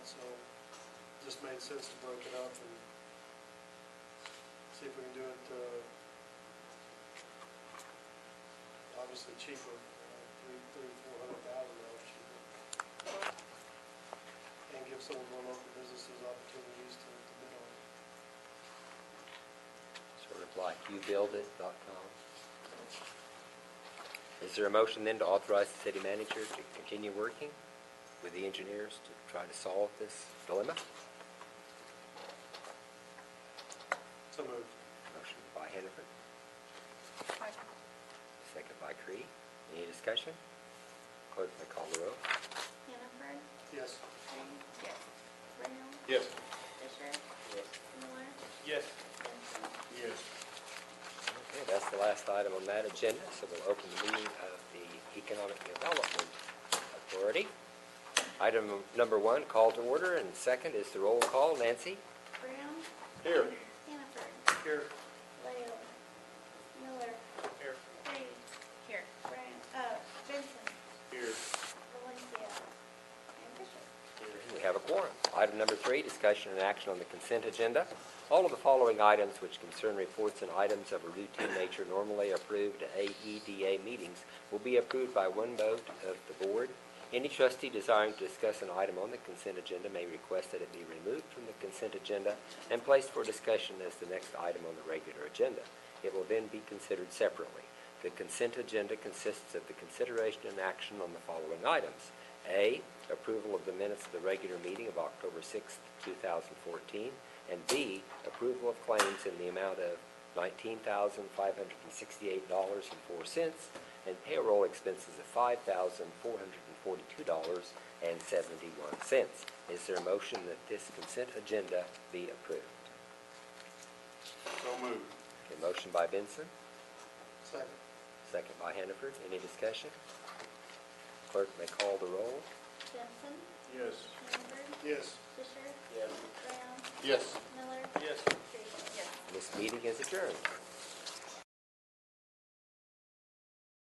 just made sense to break it up and see if we can do it, uh, obviously cheaper, uh, three, three, four hundred thousand dollars cheaper. And give some of our local businesses opportunities to to bid on it. Sort of like youbuildit.com. Is there a motion then to authorize the city manager to continue working with the engineers to try to solve this dilemma? So moved. Motion by Hannaford, Second. second by Cree. Any discussion? Clerk, may call the roll. Hannaford, Yes. Green. Yes. Brown. Yes. Fisher. Yes. Miller. Yes. Benson. Yes. Okay, that's the last item on that agenda, so we'll open the meeting of the Economic Development Authority. Item number one, call to order, and second is the roll call. Nancy? Brown. Here. Hannaford. Here. Lael. Miller. Here. Reed. Here. Brown, uh, Benson. Here. Valencia. And Fisher. We have a quorum. Item number three, discussion and action on the consent agenda. All of the following items which concern reports and items of a routine nature normally approved at AEDA meetings will be approved by one vote of the board. Any trustee desiring to discuss an item on the consent agenda may request that it be removed from the consent agenda and placed for discussion as the next item on the regular agenda. It will then be considered separately. The consent agenda consists of the consideration and action on the following items. A, approval of the minutes of the regular meeting of October 6, 2014, and B, approval of claims in the amount of $19,568.04 and payroll expenses of $5,442.71. Is there a motion that this consent agenda be approved? So moved. A motion by Benson, Second. second by Hannaford. Any discussion? Clerk may call the roll. Benson. Yes. Hannaford. Yes. Fisher. Yes. Brown. Yes. Miller. Yes. Reed. Yes. This meeting is adjourned.